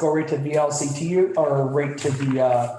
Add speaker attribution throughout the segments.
Speaker 1: go right to VLCT or right to the uh,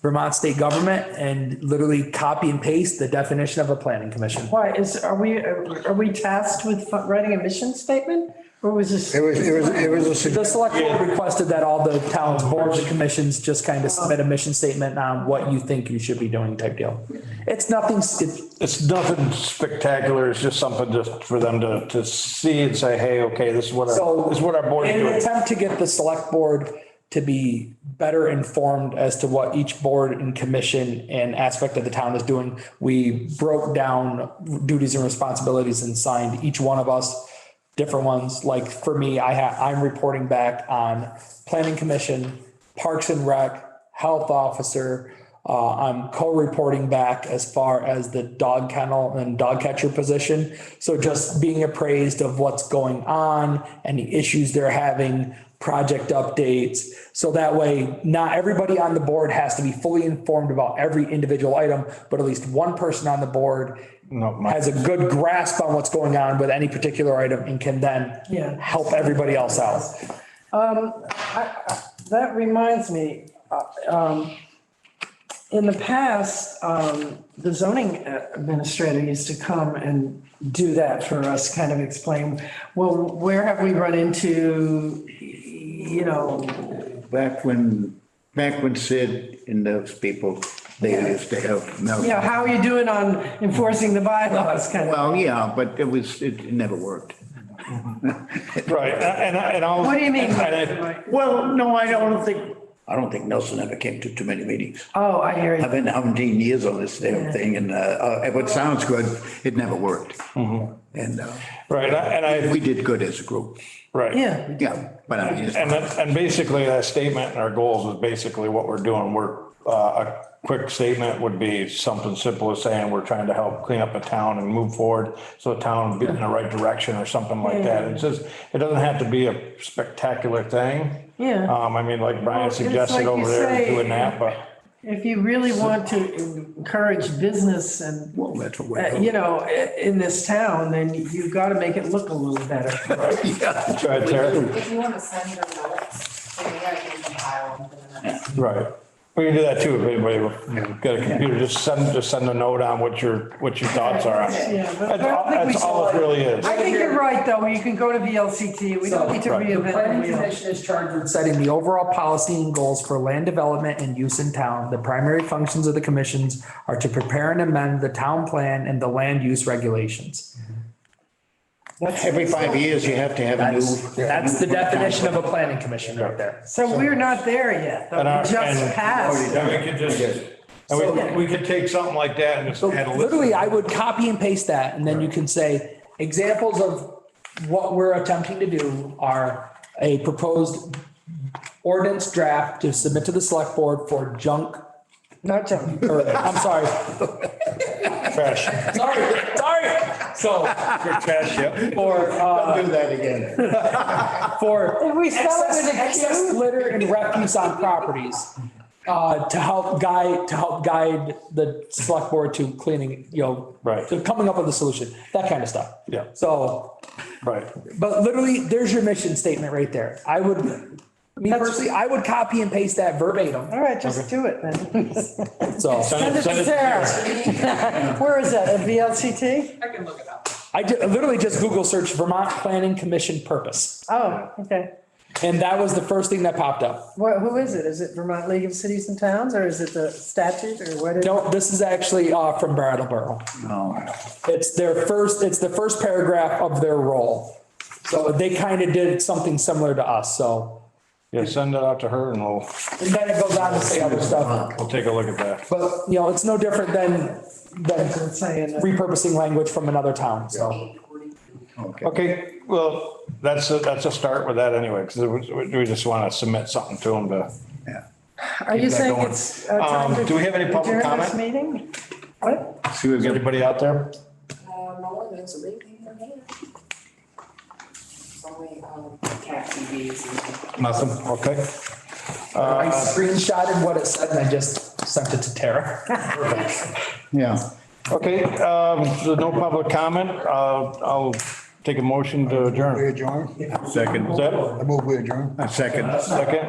Speaker 1: Vermont state government and literally copy and paste the definition of a planning commission.
Speaker 2: Why, is, are we, are we tasked with fu- writing a mission statement? Or was this?
Speaker 3: It was, it was, it was a
Speaker 1: The
Speaker 3: suggestion.
Speaker 1: select board requested that all the towns, boards and commissions just kind of submit a mission statement on what you think you should be doing type deal. It's nothing, s- it's,
Speaker 4: It's nothing spectacular. It's just something just for them to, to see and say, hey, okay, this is what,
Speaker 1: so.
Speaker 4: our this is what our board is
Speaker 1: In an
Speaker 4: doing.
Speaker 1: attempt to get the select board to be better informed as to what each board and commission and aspect of the town is doing, we broke down duties and responsibilities and signed each one of us different ones. Like for me, I ha I'm reporting back on planning commission, parks and rec, health officer. Uh, I'm co-reporting back as far as the dog kennel and dog catcher position. So just being appraised of what's going on, any issues they're having, project updates. So that way, not everybody on the board has to be fully informed about every individual item, but at least one person on the board
Speaker 4: No, my-
Speaker 1: has a good grasp on what's going on with any particular item and can then
Speaker 2: Yeah.
Speaker 1: help everybody else out.
Speaker 2: That reminds me, uh, um, in the past, um, the zoning administrator used to come and do that for us, kind of explain, well, where have we run into, you know,
Speaker 3: Back when, back when Sid and those people, they used to have,
Speaker 2: you know,
Speaker 3: no,
Speaker 2: how are you doing on enforcing the bylaws, kind of?
Speaker 3: well, yeah, but it was, it never worked.
Speaker 4: Right, and, and I'll.
Speaker 2: What do you mean?
Speaker 4: and I-
Speaker 3: Well, no, I don't think, I don't think Nelson ever came to too many meetings.
Speaker 2: Oh, I hear
Speaker 3: I've
Speaker 2: you.
Speaker 3: been seventeen years on this damn thing and, uh, uh, what sounds good, it never worked. And, uh,
Speaker 4: Right, and I,
Speaker 3: we did good as a group,
Speaker 4: right.
Speaker 2: Yeah.
Speaker 3: yeah, but I just.
Speaker 4: And that, and basically that statement and our goals is basically what we're doing. We're, uh, a quick statement would be something simple as saying we're trying to help clean up a town and move forward. So the town be in the right direction or something like that. It's just, it doesn't have to be a spectacular thing.
Speaker 2: Yeah.
Speaker 4: Um, I mean, like Brian
Speaker 2: it's
Speaker 4: suggested
Speaker 2: like you
Speaker 4: over there
Speaker 2: say-
Speaker 4: doing that, but.
Speaker 2: If you really want to encourage business and,
Speaker 3: Well, that's what
Speaker 2: uh,
Speaker 3: we're.
Speaker 2: you know, i- in this town, then you've got to make it look a little better.
Speaker 3: Yeah.
Speaker 4: Right, Tara?
Speaker 5: If you want to send your notes, then you gotta give them file them to the next.
Speaker 4: Right. We can do that too, if anybody got a computer, just send, just send a note on what your, what your thoughts are on it.
Speaker 2: Yeah, but I
Speaker 4: That's
Speaker 2: don't
Speaker 4: all,
Speaker 2: think we
Speaker 4: that's all it
Speaker 2: saw it.
Speaker 4: really is.
Speaker 2: I think you're right, though, you can go to VLCT, we don't need to
Speaker 4: So, right.
Speaker 1: The
Speaker 2: reinvent the
Speaker 1: Planning
Speaker 2: wheel.
Speaker 1: commission is charged with setting the overall policy and goals for land development and use in town. The primary functions of the commissions are to prepare and amend the town plan and the land use regulations.
Speaker 3: Every five years, you have to have a new.
Speaker 1: That's, that's the definition of a planning commission right there.
Speaker 2: So we're not there yet, though,
Speaker 4: And our-
Speaker 2: we just
Speaker 4: and- Oh,
Speaker 2: passed.
Speaker 4: Yeah, we could just, and we, we could take something like that and just add a list.
Speaker 1: Literally, I would copy and paste that, and then you can say, examples of what we're attempting to do are a proposed ordinance draft to submit to the select board for junk,
Speaker 2: Not done.
Speaker 1: or, I'm sorry,
Speaker 4: Trash,
Speaker 1: sorry, sorry. So,
Speaker 4: trash, yeah.
Speaker 1: for, uh,
Speaker 3: Do that again.
Speaker 1: for
Speaker 2: we started
Speaker 1: excess,
Speaker 2: to
Speaker 1: excess litter and refuse on properties. Uh, to help guide, to help guide the select board to cleaning, you know.
Speaker 4: Right.
Speaker 1: To coming up with a solution, that kind of stuff.
Speaker 4: Yeah.
Speaker 1: So
Speaker 4: Right.
Speaker 1: But literally, there's your mission statement right there. I would, me personally, I would copy and paste that verbatim.
Speaker 2: All right, just do it then.
Speaker 1: So
Speaker 4: Send it-
Speaker 2: Send it to Sarah. Where is that, at VLCT?
Speaker 5: I can look it up.
Speaker 1: I ju- literally just Google search Vermont Planning Commission purpose.
Speaker 2: Oh, okay.
Speaker 1: And that was the first thing that popped up.
Speaker 2: What, who is it? Is it Vermont League of Cities and Towns, or is it the statute, or what is?
Speaker 1: No, this is actually uh, from Brattleboro.
Speaker 3: No.
Speaker 1: It's their first, it's the first paragraph of their role. So they kind of did something similar to us. So
Speaker 4: Yeah, send it out to her and we'll,
Speaker 1: and then it goes on to say other stuff.
Speaker 4: we'll take a look at that.
Speaker 1: But, you know, it's no different than, than
Speaker 2: It's saying that-
Speaker 1: repurposing language from another town. So.
Speaker 3: Okay.
Speaker 4: Okay, well, that's, a- that's a start with that anyway, because we just want to submit something to them to.
Speaker 3: Yeah.
Speaker 2: Are you
Speaker 4: that
Speaker 2: saying
Speaker 4: going.
Speaker 2: it's? uh, time
Speaker 4: Um,
Speaker 2: to
Speaker 4: do we have any public
Speaker 2: adjourn this
Speaker 4: comment?
Speaker 2: Meeting? What?
Speaker 3: See, we've
Speaker 4: Is
Speaker 3: got-
Speaker 4: anybody out there?
Speaker 5: Uh, no one, there's a big thing in here. It's only, um, cat TVs and.
Speaker 4: Nothing, okay.
Speaker 1: I screenshotted what it said and I just sent it to Tara.
Speaker 3: Yeah.
Speaker 4: Okay, um, so no public comment. Uh, I'll take a motion to adjourn.
Speaker 6: adjourn?
Speaker 3: Second.
Speaker 4: Is that
Speaker 6: I move we adjourn.
Speaker 3: A second.
Speaker 4: second?